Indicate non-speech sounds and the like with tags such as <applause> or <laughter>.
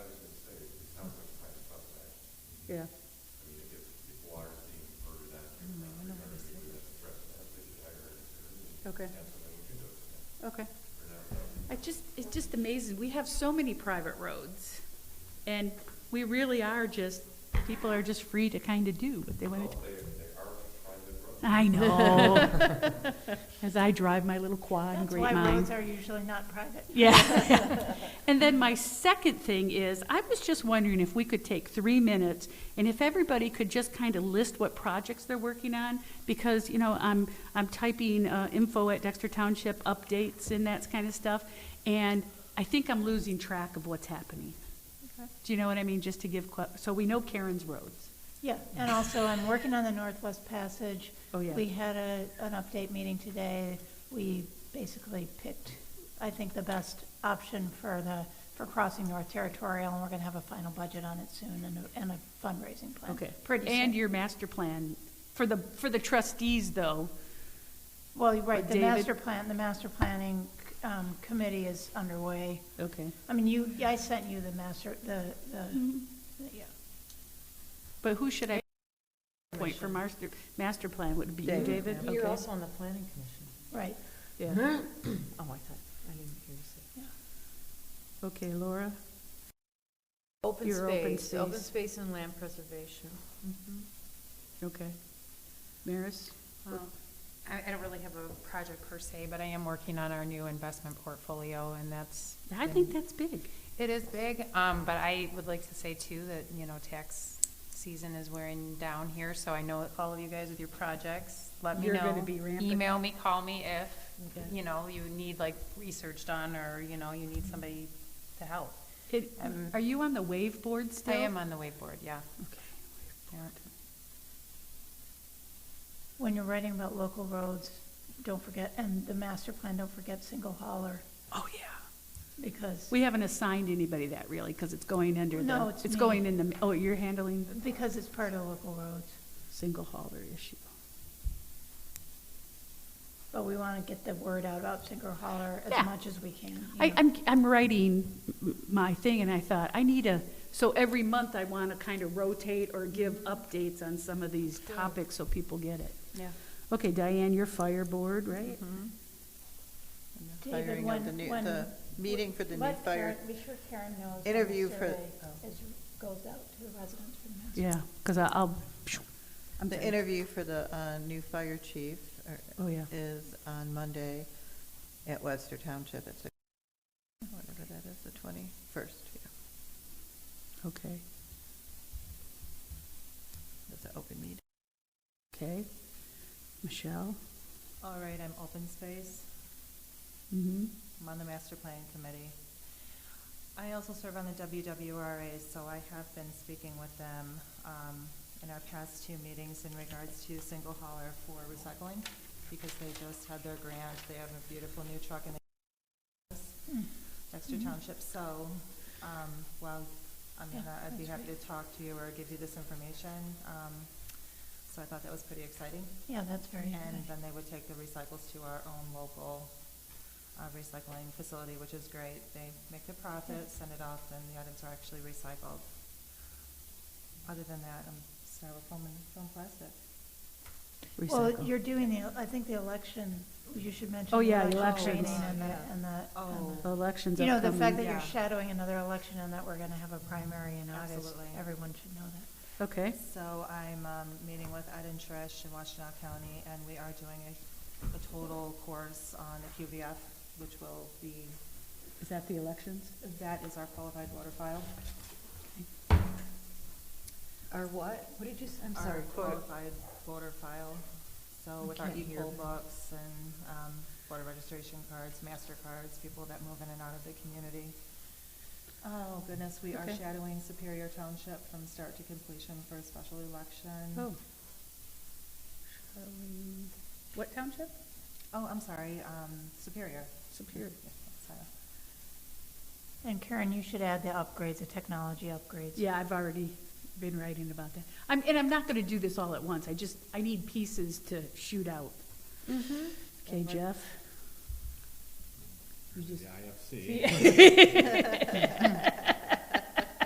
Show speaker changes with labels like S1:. S1: Yeah.
S2: I mean, if, if water's being diverted out to your
S1: Mm, I
S2: property,
S1: know what
S2: owner,
S1: it
S2: you
S1: is.
S2: would have to address that, they should hire an attorney. and
S1: Okay.
S2: That's what I would do,
S1: Okay.
S2: for now, though.
S1: It just, it's just amazing. We have so many private roads, and we really are just, people are just free to kind of do what they want to.
S2: Well, they, they are a private road.
S1: I know.
S3: <laughs>
S1: As I drive my little quad in
S3: That's
S1: Great
S3: why
S1: Mind.
S3: roads are usually not private.
S1: <laughs> Yeah. And then my second thing is, I was just wondering if we could take three minutes, and if everybody could just kind of list what projects they're working on, because, you know, I'm, I'm typing uh, info at Dexter Township updates and that kind of stuff, and I think I'm losing track of what's happening. Do you know what I mean? Just to give, que- so we know Karen's roads.
S3: Yeah, and also I'm working on the Northwest Passage.
S1: Oh, yeah.
S3: We had a, an update meeting today. We basically picked, I think, the best option for the, for crossing North Territorial, and we're gonna have a final budget on it soon and a, and a fundraising plan.
S1: Okay.
S3: Pretty soon.
S1: And your master plan. For the, for the trustees, though,
S3: Well, you're right,
S1: But
S3: the
S1: David-
S3: master plan, the master planning, um, committee is underway.
S1: okay.
S3: I mean, you, I sent you the master, the, the, yeah.
S1: But who should I point for master, master plan? Would it be you, David?
S4: You're
S1: Okay.
S4: also on the planning commission.
S3: Right,
S1: Yeah.
S4: <clears throat> Oh, I thought, I didn't hear you say.
S3: yeah.
S1: Okay, Laura?
S4: Open
S1: Your open
S4: space, open
S1: space.
S4: space and land preservation.
S1: Okay. Maris?
S5: Well, I, I don't really have a project per se, but I am working on our new investment portfolio, and that's.
S1: I think that's big.
S5: It is big, um, but I would like to say too that, you know, tax season is wearing down here, so I know all of you guys with your projects, let me know.
S1: You're gonna be ramping.
S5: Email me, call me if,
S1: Okay.
S5: you know, you need like research done, or, you know, you need somebody to help.
S1: It,
S5: Um,
S1: are you on the wave board still?
S5: I am on the wave board, yeah.
S1: Okay.
S5: Yeah.
S3: When you're writing about local roads, don't forget, and the master plan, don't forget single hauler,
S1: Oh, yeah.
S3: because,
S1: We haven't assigned anybody that really, because it's going under
S3: No,
S1: the,
S3: it's
S1: it's
S3: me.
S1: going in the, oh, you're handling the
S3: because it's part of local roads.
S1: single hauler issue.
S3: But we want to get the word out about single hauler
S1: Yeah.
S3: as much as we can. you
S1: I,
S3: know.
S1: I'm, I'm writing m- my thing, and I thought, I need a, so every month I want to kind of rotate or give updates on some of these topics so people get it.
S5: Yeah.
S1: Okay, Diane, you're fire board, right?
S3: David,
S6: Hiring
S3: when-
S6: of the new,
S3: when-
S6: the meeting for the new
S3: Let
S6: fire.
S3: Karen- Be sure Karen knows. when the
S6: interview for- Oh.
S3: survey is- Goes out to the residents for the master.
S1: Yeah, because I'll, I'm
S6: The
S1: done.
S6: interview for the uh, new fire chief or-
S1: Oh, yeah.
S6: is on Monday at Webster Township at six, whatever that is, the 21st. yeah.
S1: Okay,
S6: It's an open meeting.
S1: okay. Michelle?
S4: All right, I'm open space.
S1: Mm-hmm.
S4: I'm on the master planning committee. I also serve on the WWRA, so I have been speaking with them um, in our past two meetings in regards to single hauler for recycling, because they just had their grant, they have a beautiful new truck in
S3: Hmm.
S4: the Dexter
S3: Mm-hmm.
S4: Township, so, um, well, I mean,
S3: Yeah,
S4: I'd be
S3: that's
S4: happy to talk to you or give you this information. um, So I thought that was pretty exciting.
S3: Yeah, that's very
S4: And
S3: good.
S4: then they would take the recycles to our own local uh, recycling facility, which is great. They make the profit, send it off, and the items are actually recycled. Other than that, I'm styrofoam and foam plastic.
S3: Well, you're doing the, I think the election, you should mention.
S1: Oh,
S3: the
S1: yeah, the
S3: election
S1: elections.
S3: Training and the,
S4: Yeah.
S3: and the. and the-
S4: Oh.
S1: Elections
S3: You know, the fact
S1: upcoming.
S3: that you're
S4: Yeah.
S3: shadowing another election and that we're gonna have a primary in August,
S4: Absolutely.
S3: everyone should know that.
S1: Okay,
S4: So I'm um, meeting with Ed and Trish in Washtenaw County, and we are doing a, a total course on the QVF, which will be,
S1: is that the elections?
S4: that is our qualified voter file.
S6: Or what? What did you, I'm
S4: our qualified voter file, so with our
S6: can't hear.
S4: e-poll books and um, voter registration cards, master cards, people that move in and out of the community. Oh, goodness, we are
S1: Okay.
S4: shadowing Superior Township from start to completion for a special
S1: Oh.
S4: election.
S1: Shall we- What township?
S4: Oh, I'm sorry, um, Superior.
S1: Superior.
S4: Yeah, sorry.
S3: And Karen, you should add the upgrades, the technology upgrades.
S1: Yeah, I've already been writing about that. I'm, and I'm not gonna do this all at once, I just, I need pieces to shoot out. Mm-hmm. Okay, Jeff? You just
S2: The IFC.
S1: Yeah.